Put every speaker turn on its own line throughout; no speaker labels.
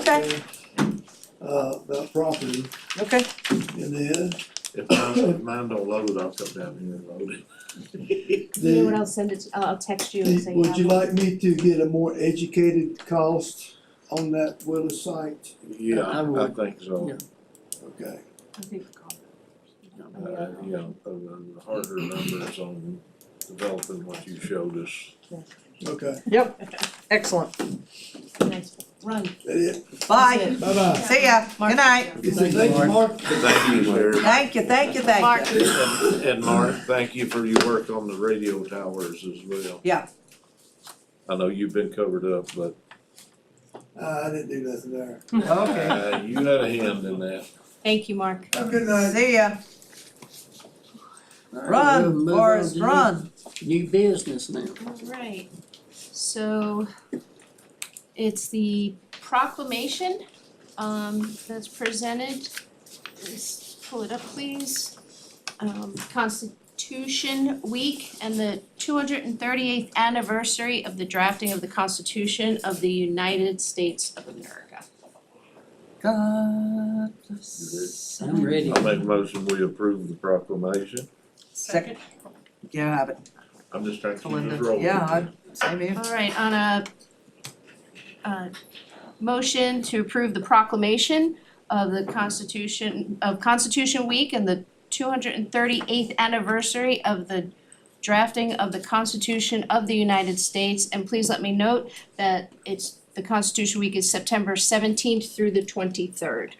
Okay.
Uh, about property,
Okay,
and then,
If mine, if mine don't load, I'll come down here and load it.
You know what,
the,
I'll send it, I'll I'll text you and
the-
say. um,
would
how
you
much.
like me to get a more educated cost on that Willis site?
Yeah,
I
I
would.
think so.
Yeah.
Okay,
I think the car-
Uh, you know, the, the harder numbers on developing what you showed us.
okay,
excellent.
Nice.
Run.
that it,
Bye.
bye-bye.
See ya. Good night.
You say thank you, Mark?
Thank you, sir.
Thank you, thank you, thank you.
And and Mark, thank you for your work on the radio towers as well.
Yeah.
I know you've been covered up, but
Uh, I didn't do nothing there.
Okay.
uh, you had a hand in that.
Thank you, Mark.
Have a good night.
See ya. Run, Forrest, run.
New business now.
Alright, so it's the proclamation um that's presented. Let's pull it up, please. Um Constitution Week and the two hundred and thirty-eighth anniversary of the drafting of the Constitution of the United States of America.
God.
I'm ready.
I make a motion, we approve the proclamation.
Second. Yeah, have it.
I'm just trying to keep
Melinda,
this rolling.
yeah, I- Same here.
Alright, on a uh motion to approve the proclamation of the Constitution of Constitution Week and the two hundred and thirty eighth anniversary of the drafting of the Constitution of the United States, and please let me note that it's the Constitution Week is September seventeenth through the twenty third.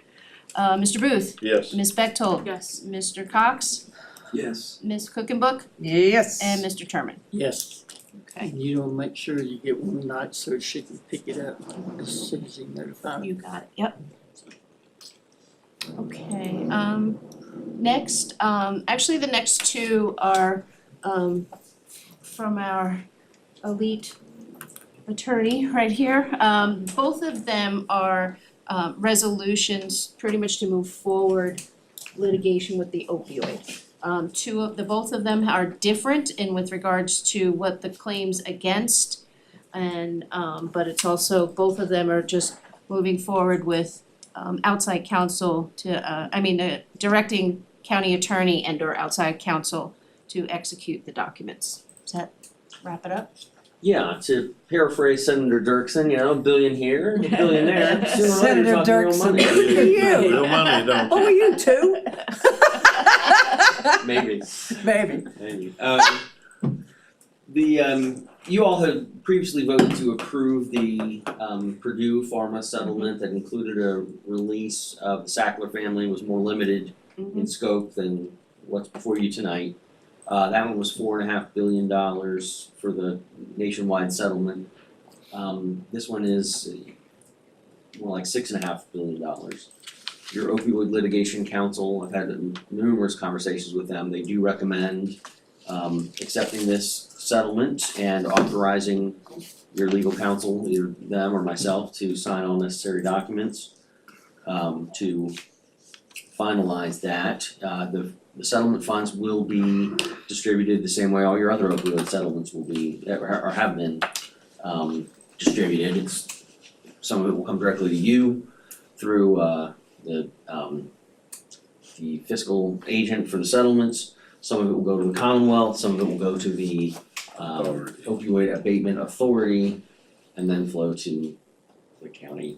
Uh Mr. Booth,
Yes.
Ms. Bechtold,
Yes.
Mr. Cox,
Yes.
Ms. Cookenbook,
Yes.
and Mr. Terman,
Yes,
okay,
and you don't make sure you get one night so she can pick it up as soon as you notify her.
you got it, yep. Okay, um, next, um, actually, the next two are, um, from our elite attorney right here. Um, both of them are, uh, resolutions pretty much to move forward litigation with the opioid. Um, two of, the both of them are different in with regards to what the claims against and, um, but it's also, both of them are just moving forward with um outside counsel to uh, I mean, uh directing county attorney and or outside counsel to execute the documents. Does that wrap it up?
Yeah, to paraphrase Senator Dirksen, you know, a billion here, a billion there, sooner or later
Senator
you're talking real
Dirksen.
money.
Look at you.
Real money, don't you?
Oh, you two?
Maybe,
Baby.
maybe. Um, the, um, you all had previously voted to approve the, um, Purdue Pharma settlement that included a release of the Sackler family was more limited in scope than what's before you tonight. Uh, that one was four and a half billion dollars for the nationwide settlement. Um, this one is uh, more like six and a half billion dollars. Your opioid litigation council, I've had numerous conversations with them, they do recommend um accepting this settlement and authorizing your legal counsel, either them or myself, to sign all necessary documents um to finalize that. Uh the the settlement funds will be distributed the same way all your other opioid settlements will be or or have been um distributed. It's some of it will come directly to you through uh the um the fiscal agent for the settlements. Some of it will go to the Commonwealth, some of it will go to the um
Authority.
opioid abatement authority and then flow to the county.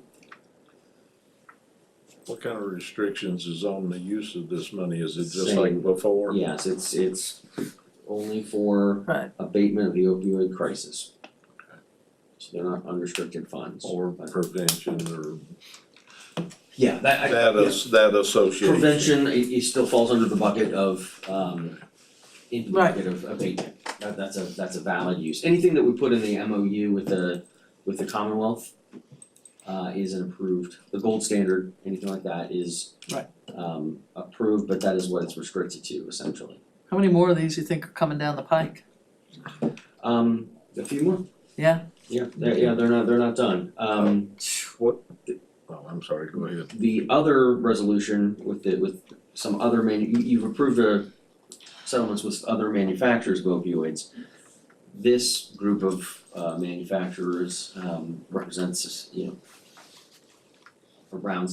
What kind of restrictions is on the use of this money? Is it just
Same.
like before?
Yes, it's it's only for
Right.
abatement of the opioid crisis. So they're not unrestricted funds.
Or prevention or
Yeah, that I-
that
yeah.
is, that association?
Prevention, it it still falls under the bucket of um in the
Right.
bucket of abatement. That that's a that's a valid use. Anything that we put in the MOU with the with the Commonwealth uh is an approved, the gold standard, anything like that is
Right.
um approved, but that is what it's restricted to essentially.
How many more of these you think are coming down the pike?
Um a few more?
Yeah.
Yeah, they're yeah, they're not they're not done. Um
Oh, I'm sorry, go ahead.
the other resolution with the, with some other manu- you, you've approved uh settlements with other manufacturers of opioids. This group of, uh, manufacturers, um, represents, you know, for Brown